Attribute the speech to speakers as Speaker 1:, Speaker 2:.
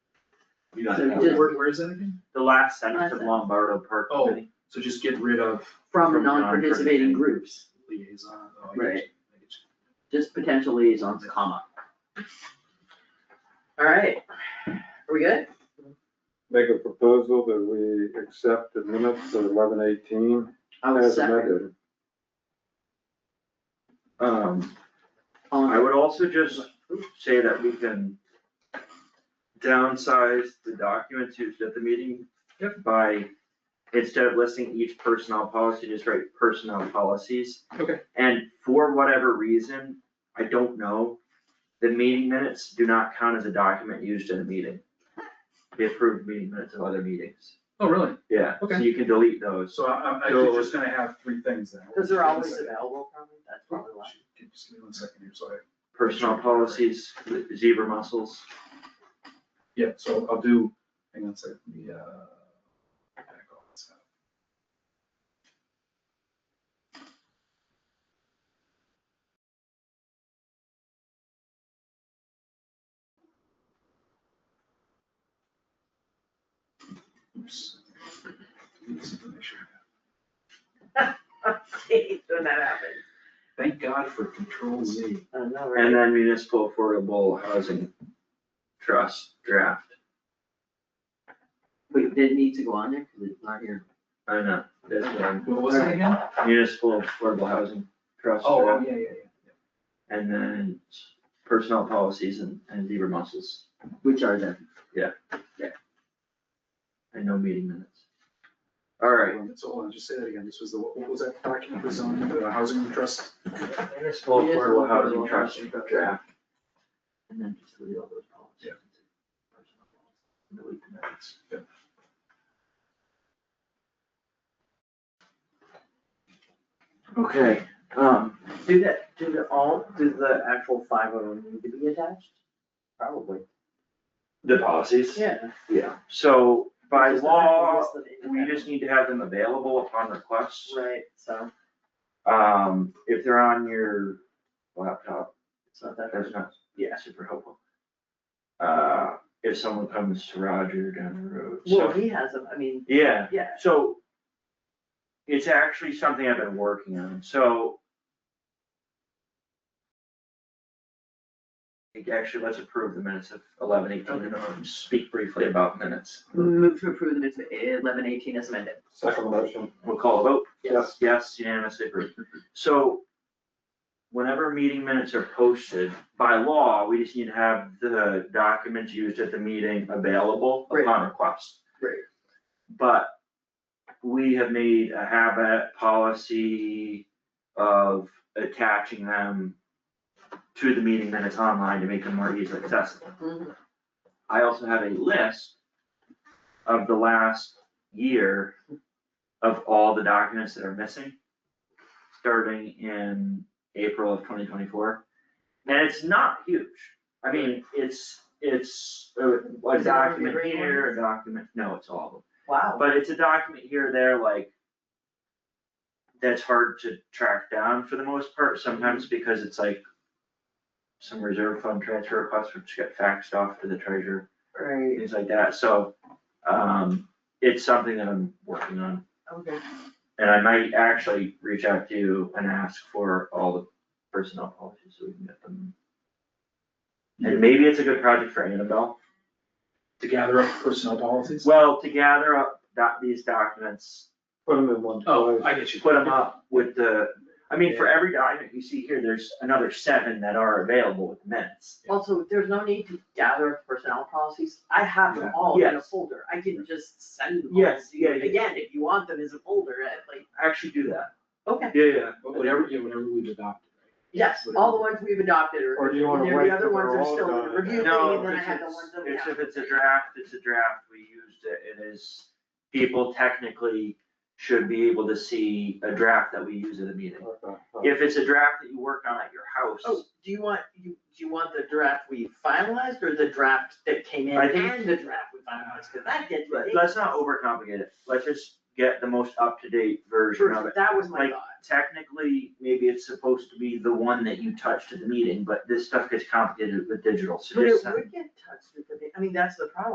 Speaker 1: you don't
Speaker 2: So
Speaker 1: have
Speaker 2: just-
Speaker 1: to.
Speaker 2: where is that again?
Speaker 1: The last sentence of Lombardo Park
Speaker 2: Oh.
Speaker 1: Committee.
Speaker 2: So just get rid of
Speaker 1: From
Speaker 2: from
Speaker 1: non-participating
Speaker 2: non-participating groups, liaison. oh, I get you,
Speaker 1: Right.
Speaker 2: I get you.
Speaker 1: just potential liaisons, comma.
Speaker 3: Alright, are we good?
Speaker 4: Make a proposal that we accept the minutes of eleven eighteen
Speaker 1: I would
Speaker 4: as
Speaker 1: second.
Speaker 4: amended.
Speaker 1: Um,
Speaker 3: All in-
Speaker 1: I would also just say that we can downsize the documents used at the meeting. By, instead of listing each personnel policy, just write personnel policies.
Speaker 2: Okay.
Speaker 1: And for whatever reason, I don't know, the meeting minutes do not count as a document used in a meeting. The approved meeting minutes of other meetings.
Speaker 2: Oh, really?
Speaker 1: Yeah, so
Speaker 2: Okay.
Speaker 1: you can delete those.
Speaker 2: So I, I'm actually just gonna have three things then.
Speaker 3: Cause they're always available, probably, that's probably why.
Speaker 2: Just give me one second here, so I,
Speaker 1: Personnel policies, zebra mussels.
Speaker 2: yeah, so I'll do, hang on a second, the, uh. back all this out. Oops. Make sure.
Speaker 3: When that happens.
Speaker 2: Thank God for Control Z.
Speaker 3: I don't know,
Speaker 1: And
Speaker 3: right?
Speaker 1: then municipal affordable housing trust draft,
Speaker 3: Wait, did it need to go on there, cause it's not here.
Speaker 1: I know, this one,
Speaker 2: What was it again?
Speaker 1: municipal affordable housing trust
Speaker 2: Oh, oh,
Speaker 1: draft,
Speaker 2: yeah, yeah, yeah.
Speaker 1: and then personnel policies and, and zebra mussels,
Speaker 3: Which are them?
Speaker 1: and no meeting minutes. Alright,
Speaker 2: So hold on, just say that again, this was the, what was that document, was on the housing trust?
Speaker 1: municipal affordable housing trust draft,
Speaker 3: And then just delete all those policies.
Speaker 2: Yeah.
Speaker 3: Personnel policies.
Speaker 1: delete the minutes.
Speaker 3: Okay, um, do that, do the all, do the actual five of them need to be attached? Probably.
Speaker 1: The policies?
Speaker 3: Yeah.
Speaker 1: Yeah, so by
Speaker 3: Just the
Speaker 1: law,
Speaker 3: actual list of
Speaker 1: we just need to have them available upon request.
Speaker 3: independent- Right, so
Speaker 1: Um, if they're on your laptop,
Speaker 3: it's not that.
Speaker 1: that's not, yeah,
Speaker 3: Yeah.
Speaker 1: super helpful. Uh, if someone comes to Roger down the road,
Speaker 3: Well,
Speaker 1: so,
Speaker 3: he has them, I mean,
Speaker 1: yeah,
Speaker 3: yeah,
Speaker 1: so. It's actually something I've been working on, so. I think Actually, let's approve the minutes of eleven eighteen and I'll speak briefly about minutes.
Speaker 3: move to approve the minutes of eleven eighteen as amended.
Speaker 4: Second motion.
Speaker 1: We'll call a vote.
Speaker 3: Yes.
Speaker 1: Yes, unanimously approved. So whenever meeting minutes are posted, by law, we just need to have the documents used at the meeting available upon
Speaker 3: Right.
Speaker 1: request.
Speaker 3: Right.
Speaker 1: But we have made a habit policy of attaching them to the meeting minutes online to make them more easily accessible.
Speaker 3: Mhm.
Speaker 1: I also have a list of the last year of all the documents that are missing, starting in April of twenty twenty-four. And it's not huge. I mean, it's, it's uh, a- a
Speaker 3: Is it one of the
Speaker 1: document
Speaker 3: green
Speaker 1: here, a
Speaker 3: ones?
Speaker 1: document, no, it's all of them.
Speaker 3: Wow.
Speaker 1: But it's a document here, or there, like, that's hard to track down for the most part, sometimes
Speaker 3: Mm-hmm.
Speaker 1: because it's like some reserve fund transfer requests which get faxed off to the treasurer
Speaker 3: Right,
Speaker 1: things like that, so, um, it's something that I'm working on.
Speaker 3: okay.
Speaker 1: And I might actually reach out to you and ask for all the personnel policies so we can get them. And maybe it's a good project for Annabelle,
Speaker 2: To gather up personnel policies?
Speaker 1: well, to gather up that, these documents,
Speaker 4: Put them in one
Speaker 2: Oh,
Speaker 4: place.
Speaker 2: I get you.
Speaker 1: put them up with the, I mean, for every document you see here, there's another seven that are available with minutes.
Speaker 3: Also, there's no need to gather personnel policies, I have them all in a
Speaker 1: Yes.
Speaker 3: folder, I can just send them all
Speaker 1: Yes,
Speaker 3: to you.
Speaker 1: yeah, yeah.
Speaker 3: Again, if you want them as a folder, at like,
Speaker 1: Actually do that.
Speaker 3: okay,
Speaker 1: Yeah, yeah.
Speaker 2: But Whatever, yeah, whatever we've adopted.
Speaker 3: yes, all the ones we've adopted are.
Speaker 4: Or do you wanna
Speaker 3: there-
Speaker 4: wait
Speaker 3: The other
Speaker 4: till
Speaker 3: ones
Speaker 4: they're
Speaker 3: are
Speaker 4: all
Speaker 3: still in
Speaker 4: done
Speaker 3: the review
Speaker 4: and
Speaker 3: thing,
Speaker 4: then-
Speaker 3: and then I
Speaker 1: No,
Speaker 3: have the
Speaker 1: it's-
Speaker 3: ones that we
Speaker 1: it's,
Speaker 3: have.
Speaker 1: if it's a draft, it's a draft, we used it, it is, people technically should be able to see a draft that we use at a meeting.
Speaker 4: Okay.
Speaker 1: If it's a draft that you work on at your
Speaker 3: Oh,
Speaker 1: house,
Speaker 3: do you want, you, do you want the draft we finalized or the draft that came in
Speaker 1: I think-
Speaker 3: and the draft we finalized, cause that gets
Speaker 1: let-
Speaker 3: ridiculous.
Speaker 1: let's not overcomplicate it, let's just get the most up-to-date version of
Speaker 3: Sure,
Speaker 1: it.
Speaker 3: that was my
Speaker 1: Like-
Speaker 3: thought,
Speaker 1: Technically, maybe it's supposed to be the one that you touched at the meeting, but this stuff gets complicated with digital, so
Speaker 3: but it
Speaker 1: just uh, send
Speaker 3: would get touched with the, I mean, that's the problem.